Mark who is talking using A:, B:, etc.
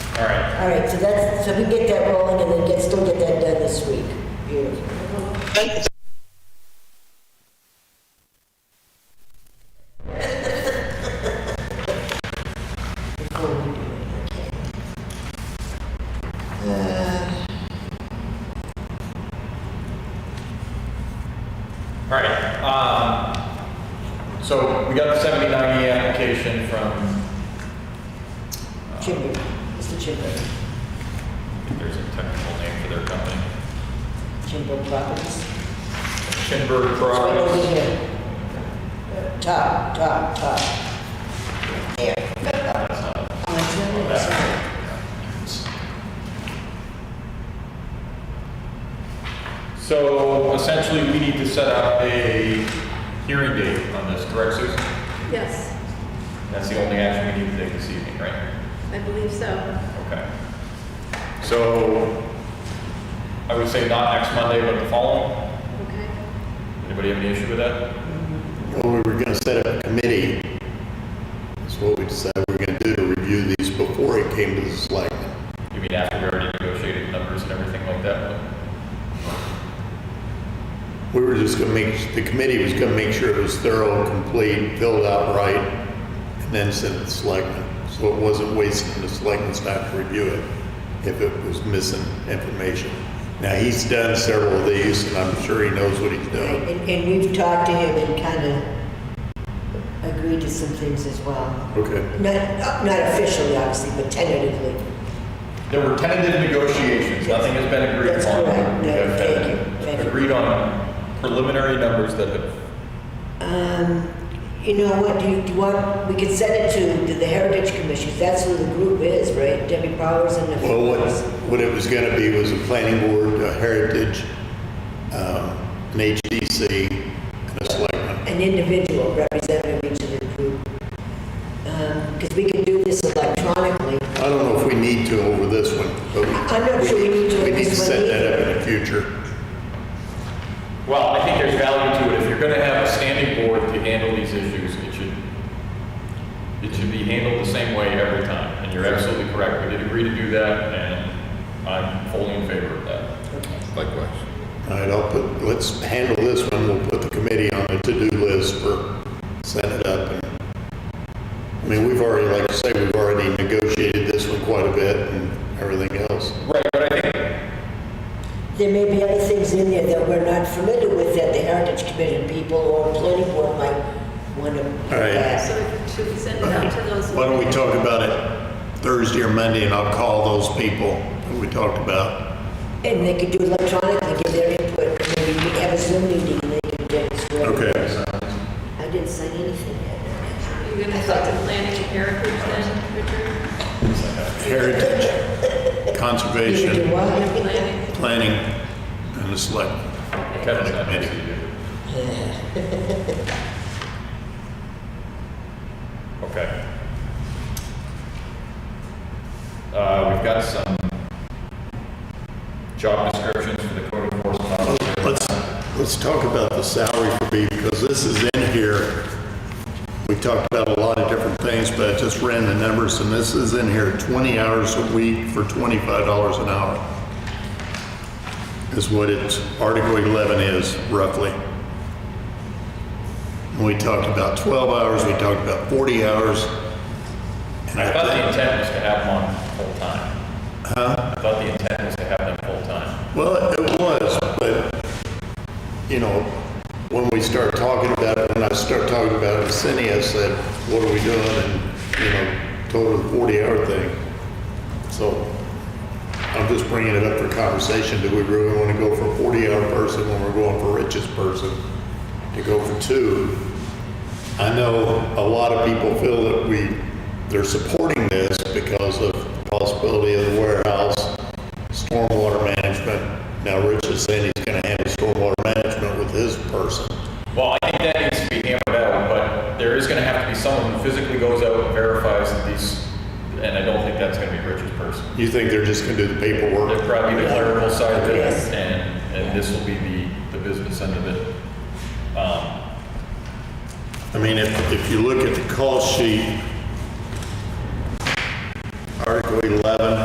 A: All right.
B: All right, so that's, so we get that rolling and then get, still get that done this week. Beautiful.
A: All right, um, so we got the seventy-nine E application from,
B: Chimney, Mr. Chimbo,
A: there's a technical name for their company,
B: Chimbo Properties.
A: Shinberg
B: It's right over
A: Products.
B: here. Top, top, top. There. Oh, it's in there, it's in there.
A: So essentially, we need to set up a hearing date on this, correct, Susan?
C: Yes,
A: That's the only action we need to take this evening, right?
C: I believe so.
A: Okay. So I would say not next Monday, but the following.
C: Okay.
A: Anybody have any issue with that?
D: Well, we were gonna set up a committee. That's what we decided we were gonna do, to review these before it came to the selectmen.
A: You mean after we already negotiated numbers and everything like that?
D: We were just gonna make, the committee was gonna make sure it was thorough, complete, filled out right, and then send it to the selectmen. So it wasn't wasting the selectmen's time to review it if it was missing information. Now, he's done several of these, and I'm sure he knows what he's doing.
B: And, and we've talked to him and kind of agreed to some things as well.
D: Okay.
B: Not, not officially, obviously, but tentatively.
A: There were tentative negotiations, nothing has been agreed
B: That's
A: upon.
B: correct.
A: We have
B: Thank
A: been
B: you. Thank you.
A: Agreed on preliminary numbers that have,
B: Um, you know what, do you, do you want, we could send it to, to the Heritage Commission, that's who the group is, right? Debbie Powers and the.
D: Well, what, what it was gonna be was a planning board, a heritage, um, an HDC, and a selectman.
B: An individual representative of each of the group. Um, because we can do this electronically.
D: I don't know if we need to over this one, but.
B: I'm not sure we need to
D: We need to
B: this one
D: set that
B: either.
D: up in the future.
A: well, I think there's value to it. If you're gonna have a standing board to handle these issues, it should, it should be handled the same way every time. And you're absolutely correct, we did agree to do that, and I'm fully in favor of that.
E: Likewise.
D: All right, I'll put, let's handle this one, we'll put the committee on the to-do list for, set it up. and- I mean, we've already, like I say, we've already negotiated this one quite a bit and everything else.
A: Right, but I think
B: There may be other things in there that we're not familiar with that the Heritage Commission people or planning board might want to.
D: All right.
C: So should we send it out to those?
D: Why don't we talk about it Thursday or Monday, and I'll call those people that we talked about.
B: And they could do electronically, give their input, and maybe we could have a Zoom meeting and they could demonstrate. I didn't sign anything yet.
C: You're gonna talk to planning and heritage then, Richard?
D: Heritage,
B: Neither do
D: conservation,
B: I.
C: Planning?
D: planning, and the select.
A: Kevin's not busy either. Okay. Uh, we've got some job descriptions for the code enforcement officer.
D: Let's, let's talk about the salary for me, because this is in here. We talked about a lot of different things, but I just ran the numbers, and this is in here, 20 hours a week for $25 an hour is what it's, Article 11 is roughly. And We talked about 12 hours, we talked about 40 hours. and
A: I thought the
D: think-
A: intent was to have them on full-time. Huh? I thought the intent was to have them full-time.
D: Well, it was, but, you know, when we start talking about it, when I start talking about it, with Cindy, I said, what are we doing? And, you know, told her the 40-hour thing. So I'm just bringing it up for conversation. Do we really want to go for a 40-hour person when we're going for richest person? To go for two? I know a lot of people feel that we, they're supporting this because of the possibility of the warehouse, stormwater management. Now, Rich is saying he's gonna handle stormwater management with his person.
A: Well, I think that needs to be hammered out, but there is gonna have to be someone who physically goes out and verifies that these, and I don't think that's gonna be Richard's person.
D: You think they're just gonna do the
A: There'd
D: paperwork?
A: probably be the clerical side of it,
B: Yes.
A: and, and this will be the, the business end of it. Um,
D: I mean, if, if you look at the call sheet,